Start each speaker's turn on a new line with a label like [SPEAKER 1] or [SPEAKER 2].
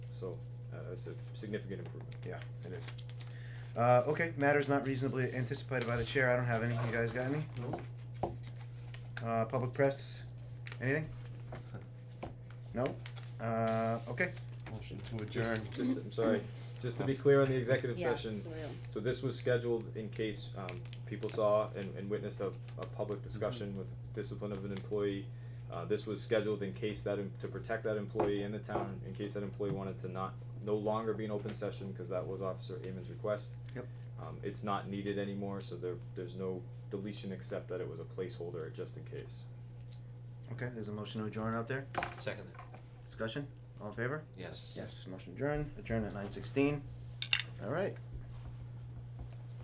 [SPEAKER 1] so, uh, it's a significant improvement.
[SPEAKER 2] Yeah, it is. Uh, okay, matters not reasonably anticipated by the chair, I don't have any, you guys got any? Uh, public press, anything? No? Uh, okay,
[SPEAKER 3] Motion to
[SPEAKER 1] Just,
[SPEAKER 3] adjourn.
[SPEAKER 1] just, I'm sorry, just to be clear on the executive
[SPEAKER 4] Yes,
[SPEAKER 1] session,
[SPEAKER 4] we will.
[SPEAKER 1] so this was scheduled in case, um, people saw and, and witnessed a, a public discussion with discipline of an employee. Uh, this was scheduled in case that, em- to protect that employee in the town, in case that employee wanted to not, no longer be an open session, cause that was Officer Amon's request.
[SPEAKER 2] Yep.
[SPEAKER 1] Um, it's not needed anymore, so there, there's no deletion except that it was a placeholder just in case.
[SPEAKER 2] okay, there's a motion to adjourn out there,
[SPEAKER 5] Second,
[SPEAKER 2] discussion, all in favor?
[SPEAKER 5] yes.
[SPEAKER 2] Yes, motion adjourned, adjourned at nine sixteen, alright.